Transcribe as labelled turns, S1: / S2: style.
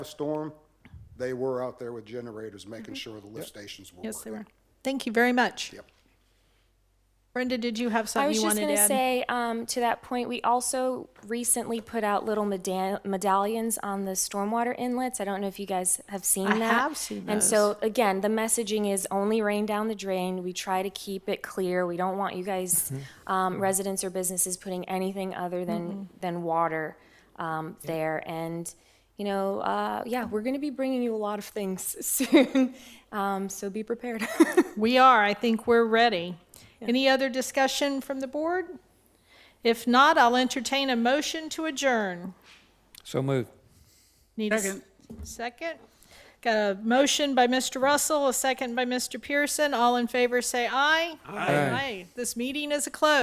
S1: a storm, they were out there with generators, making sure the lift stations were working.
S2: Mm-hmm. Yes, they were. Thank you very much.
S1: Yep.
S2: Brenda, did you have
S3: I
S2: something
S3: was
S2: you
S3: just
S2: wanted to
S3: going to
S2: add?
S3: say, um, to that point, we also recently put out little meda- medallions on the stormwater inlets. I don't know if you guys have seen
S2: I
S3: that.
S2: have seen
S3: And so, again, the messaging is only rain down the drain. We try to keep it clear. We don't want you guys,
S2: Mm-hmm.
S3: um, residents or businesses putting anything other than, than water, um, there. And, you know, uh, yeah, we're going to be bringing you a lot of things soon. Um, so be prepared.
S2: We are, I think we're ready. Any other discussion from the board? If not, I'll entertain a motion to adjourn.
S4: So moved.
S2: Need a s- Second. Got a motion by Mr. Russell, a second by Mr. Pearson. All in favor, say aye. Aye. This meeting is a close.